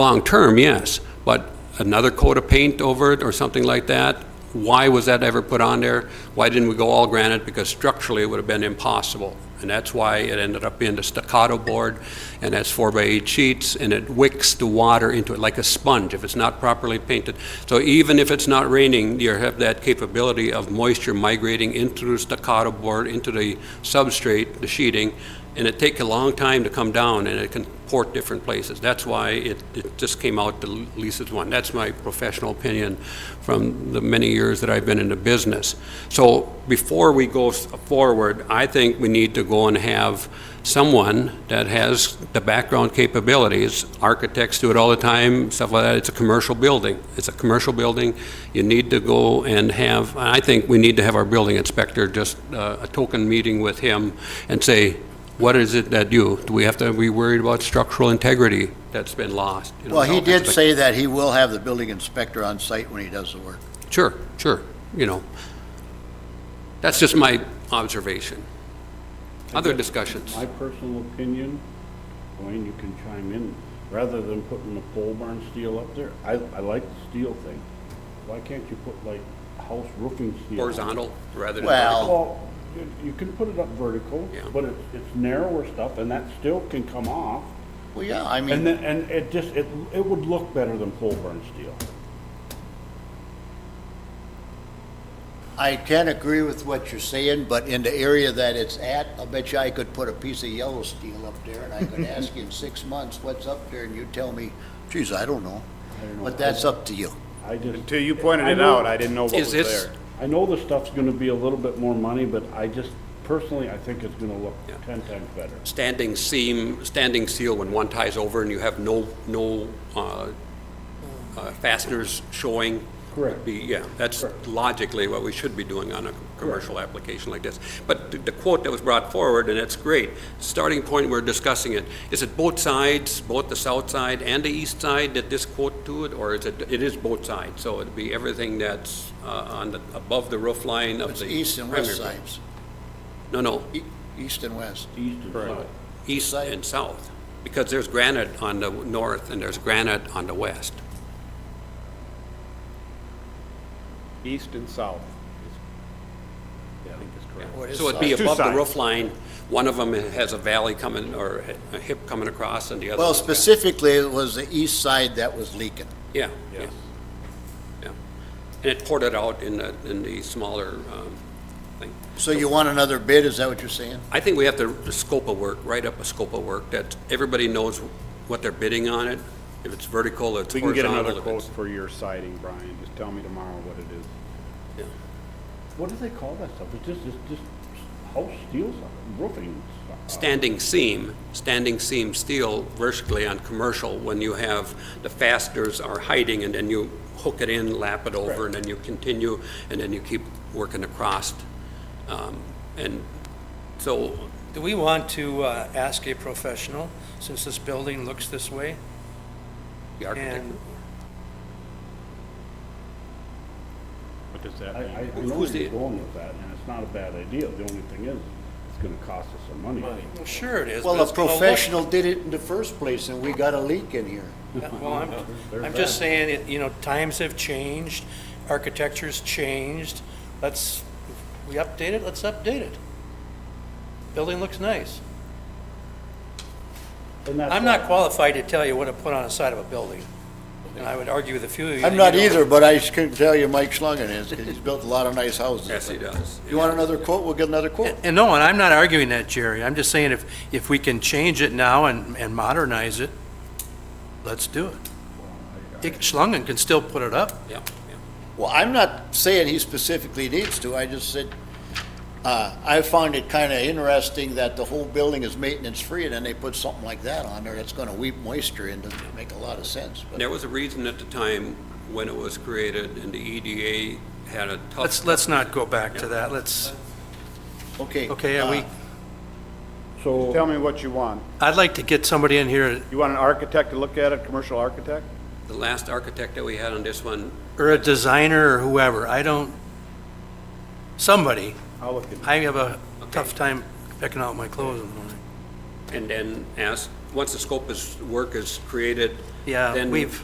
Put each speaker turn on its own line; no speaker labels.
long-term, yes, but another coat of paint over it or something like that? Why was that ever put on there? Why didn't we go all granite? Because structurally, it would have been impossible. And that's why it ended up being the staccato board, and that's four by eight sheets, and it wicks the water into it like a sponge if it's not properly painted. So even if it's not raining, you have that capability of moisture migrating into the staccato board, into the substrate, the sheeting, and it take a long time to come down, and it can port different places. That's why it, it just came out the least one. That's my professional opinion from the many years that I've been in the business. So before we go s- forward, I think we need to go and have someone that has the background capabilities. Architects do it all the time, stuff like that. It's a commercial building. It's a commercial building. You need to go and have, I think we need to have our building inspector, just uh, a token meeting with him and say, what is it that you, do we have to be worried about structural integrity that's been lost? You know,
Well, he
health
did
aspect-
say that he will have the building inspector on site when he does the work.
Sure, sure, you know. That's just my observation. Other discussions?
My personal opinion, Wayne, you can chime in, rather than putting the pole barn steel up there, I, I like the steel thing. Why can't you put like house roofing steel?
Horizontal rather than
Well-
vertical?
Well, you- you can put it up vertical,
Yeah.
but it's, it's narrower stuff and that still can come off.
Well, yeah, I
And
mean,
then, and it just, it, it would look better than pole barn steel.
I can agree with what you're saying, but in the area that it's at, I bet you I could put a piece of yellow steel up there, and I could ask you in six months, what's up there, and you tell me, geez, I don't know. But that's up to you.
I just.
Until you pointed it
know-
out, I didn't know what
Is
was
this-
there.
I know the stuff's gonna be a little bit more money, but I just, personally, I think it's gonna look
Yeah.
ten times better.
Standing seam, standing seal when one ties over and you have no, no uh, uh, fasteners showing?
Correct.
would be- Yeah, that's
Correct.
logically what we should be doing on a commercial application like this. But th- the quote that was brought forward, and it's great, starting point, we're discussing it, is it both sides, both the south side and the east side that this quote to it, or is it, it is both sides? So it'd be everything that's uh, on the, above the roof line of
It's
the.
east and
primary
west
building.
sides,
No, no,
E- east and west.
East and south.
east
Side.
and south, because there's granite on the north and there's granite on the west.
East and south. I think is correct.
What is
So it'd be
size?
Two
above the
sides.
roof line, one of them has a valley coming, or a hip coming across, and the other.
Well,
one's got-
specifically, it was the east side that was leaking.
Yeah, yeah, yeah. And it poured it out in the, in the smaller um, thing.
So you want another bid, is that what you're saying?
I think we have to, the scope of work, write up a scope of work, that everybody knows what they're bidding on it, if it's vertical, it's
We can get
horizontal.
another
if it's-
quote for your siding, Brian. Just tell me tomorrow what it is.
What do they call that stuff? It's just, it's just house steel stuff, roofing stuff.
standing seam, standing seam steel vertically on commercial, when you have, the fasteners are hiding, and then you hook it in, lap it over, and then you continue, and then you keep working across. Um, And so,
Do we want to uh, ask a professional, since this building looks this way?
the architect,
And
What does
I, I
that
I
mean?
know
Who's
where you're
the-
going with that, and it's not a bad idea. The only thing is, it's gonna cost us some money.
Well, sure it is. but
Well, a
it's gonna look-
professional did it in the first place, and we got a leak in here.
Yeah, Well, I'm, I'm just saying, it- you know, times have changed, architecture's changed. Let's, we update it, let's update it. Building looks nice.
And that's
I'm
why-
not qualified to tell you what to put on the side of a building, and I would argue with a few of you.
I'm
that
not
you know-
either, but I can tell you Mike Schlangen is, 'cause he's built a lot of nice houses.
yes, he does.
You want another quote? We'll get another quote.
And no, and I'm not arguing that, Jerry. I'm just saying if, if we can change it now and, and modernize it, let's do it. Dick Schlangen can still put it up.
Yeah, yeah.
Well, I'm not saying he specifically needs to, I just said, uh, I find it kind of interesting that the whole building is maintenance-free, and then they put something like that on there that's going to weep moisture in, doesn't make a lot of sense. but-
There was a reason at the time when it was created, and the EDA had a tough.
Let's, let's not go back to that. Let's,
Okay.
okay, are we,
uh,
So,
Tell me what you want.
I'd like to get somebody in here,
You want an architect to look at it, commercial architect?
The last architect that we had on this one,
or a designer or whoever. I don't, somebody.
I'll look at it.
I have a tough time picking out my clothes in the morning.
and then asked, once the scope is, work is created,
Yeah,
then
we've-